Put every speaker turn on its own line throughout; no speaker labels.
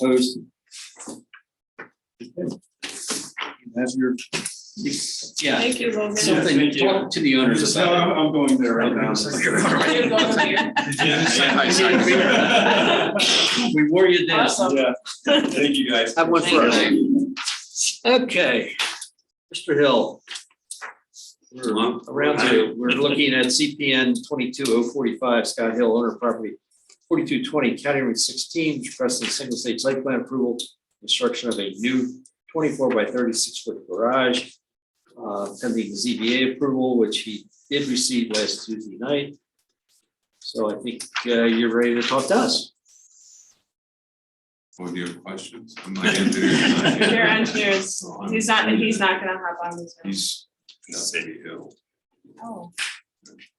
Opposed? Okay. That's your.
Yeah,
Thank you, Logan.
something, talk to the owners
No,
about
I'm, I'm going there right now.
Thank you,
it.
Logan.
We wore you down.
Awesome.
Yeah. Thank you, guys.
Have one for us.
Thank
Okay, Mr. Hill. We're around two, we're looking at CPN twenty-two oh forty-five, Scott Hill, owner of property forty-two twenty, County Route sixteen, requesting single stage site plan approval, construction of a new twenty-four by thirty-six foot garage. Uh, pending ZBA approval, which he did receive last Tuesday night. So I think, uh, you're ready to talk to us.
Or do you have questions? I'm not gonna do it. I'm not
Your
gonna-
engineers, he's not, he's not gonna hop on this. one.
He's not very ill,
Oh,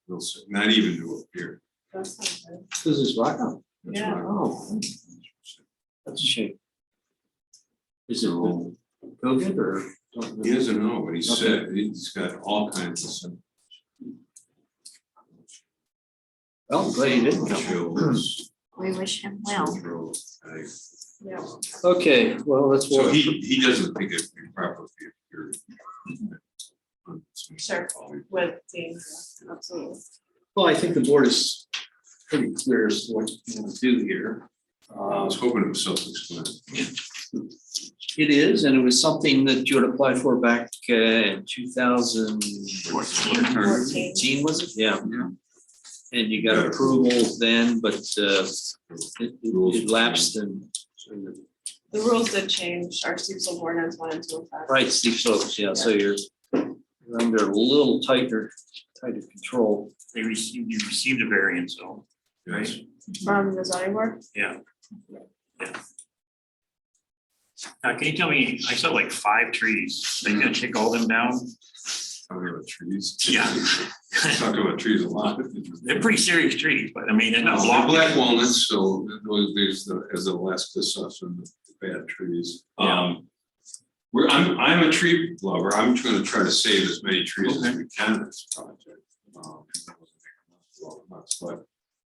real sick, not even to appear.
that's not good.
This is Rocco.
That's
Yeah.
why-
Oh. That's a shame. Is it all COVID or? don't
He
know?
doesn't know what he said, he's got all kinds of symptoms.
Well, Oh, I'm glad you didn't come.
Chills.
We wish him well.
throat, like-
Yeah.
Okay, well, that's
So
what,
he, he doesn't think it'd be proper for you.
Sure. With Dean, absolutely.
well, I think the board is pretty clear as to what you want to do here.
I
Uh,
was hoping it was self-explanatory.
It is, and it was something that you had applied for back uh, in two thousand
Fourteen.
fourteen, was it? Yeah.
Yeah.
And you got
Yeah.
approval then, but uh, it it lapsed and and
The rules did change, our steeps of ordinance went into effect.
Right, steep slopes, yeah, so you're you're under a little tighter, tighter control.
they received, you received a variance, so.
Yes.
From the zoning board,
Now, can you tell me, I saw like five trees, they gonna take all them down?
Talking about trees.
Yeah.
Talking about trees a lot.
They're pretty serious trees, but I mean, they're not
Well,
blocking.
Black walnuts, so those- there's the, as the last discussed on the bad trees. Um, we're, I'm, I'm a tree lover. I'm trying to try to save as many trees as we can in this project. Um, well, not, But,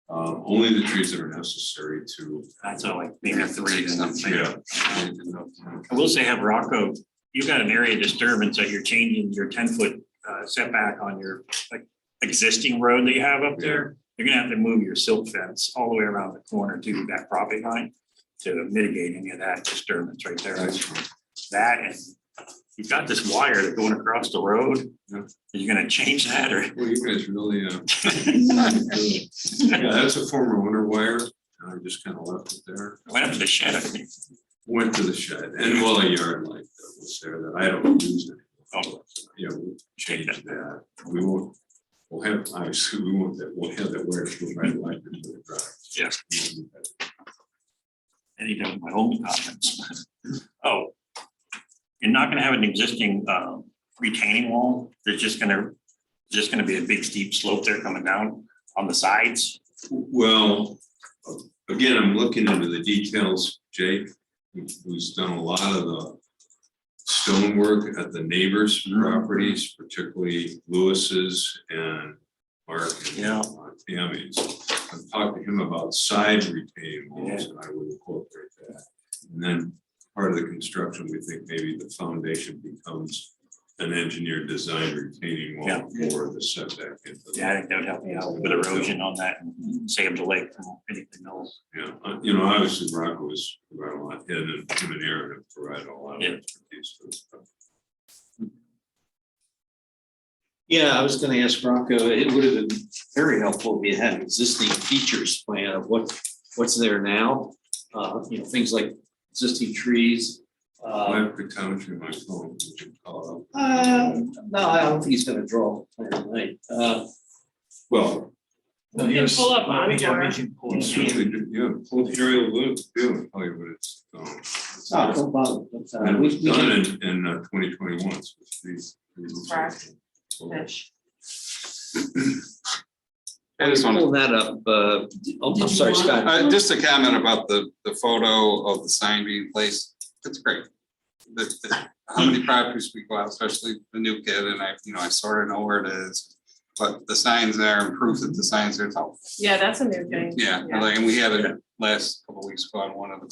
um, only the trees that are necessary to.
I saw like maybe three. then I'm saying.
Yeah.
I will say have Rocco, you've got an area disturbance that you're changing your ten foot uh, setback on your like existing road that you have up there. You're gonna have to move your silt fence all the way around the corner to that property line to mitigate any of that disturbance right there.
That's
that and you've got this wire that going across the road.
Yeah.
Are you gonna change that or?
Well, you guys really, uh, yeah, that's a former winter wire. I just kind of left it there.
Went up to the shed, I think.
went to the shed and well, a yard light that was there that I don't use anymore.
Oh.
Yeah, we'll change that. We won't, we'll have, obviously, we won't, that we'll have that where it's right light into the drive.
Yeah. And he done my own comments. Oh. You're not gonna have an existing um, retaining wall. There's just gonna, just gonna be a big steep slope there coming down on the sides.
Well, again, I'm looking into the details, Jake, who's done a lot of the stonework at the neighbors'
Mm-hmm.
properties, particularly Lewis's and Mark. and,
Yeah.
uh, Tammy's. I've talked to him about side retaining walls, and I would incorporate that. And then part of the construction, we think maybe the foundation becomes an engineer designed retaining wall for the setback. into the-
Yeah, I think that would help you out with erosion on that and save the lake from anything else.
yeah, uh, you know, obviously Morocco was providing a lot, and then him and Aaron have provided a lot of
Yeah.
expertise for this stuff.
Yeah, I was gonna ask Rocco, it would have been very helpful if you had an existing features plan of what, what's there now. Uh, you know, things like existing trees.
I
Uh,
have pictometry in my phone, you can call it up.
uh, no, I don't think he's gonna draw a plan tonight. Uh,
Well,
we can pull up on for,
you certainly do- yeah, pull the aerial loop, do and tell you what it's. um, it's-
oh, don't bother. That's, uh,
And it
we-
was
we can-
done in, in twenty twenty-one.
Correct.
I just want
Pull that up, uh, oh, I'm sorry,
to,
Scott.
uh, just a comment about the, the photo of the sign being placed. It's great. The, the, how many properties we go out, especially the new kid, and I, you know, I sort of know where it is. But the signs there and proof that the signs are, helpful.
yeah, that's a new thing.
yeah, like, and we had it last couple of weeks ago on one of the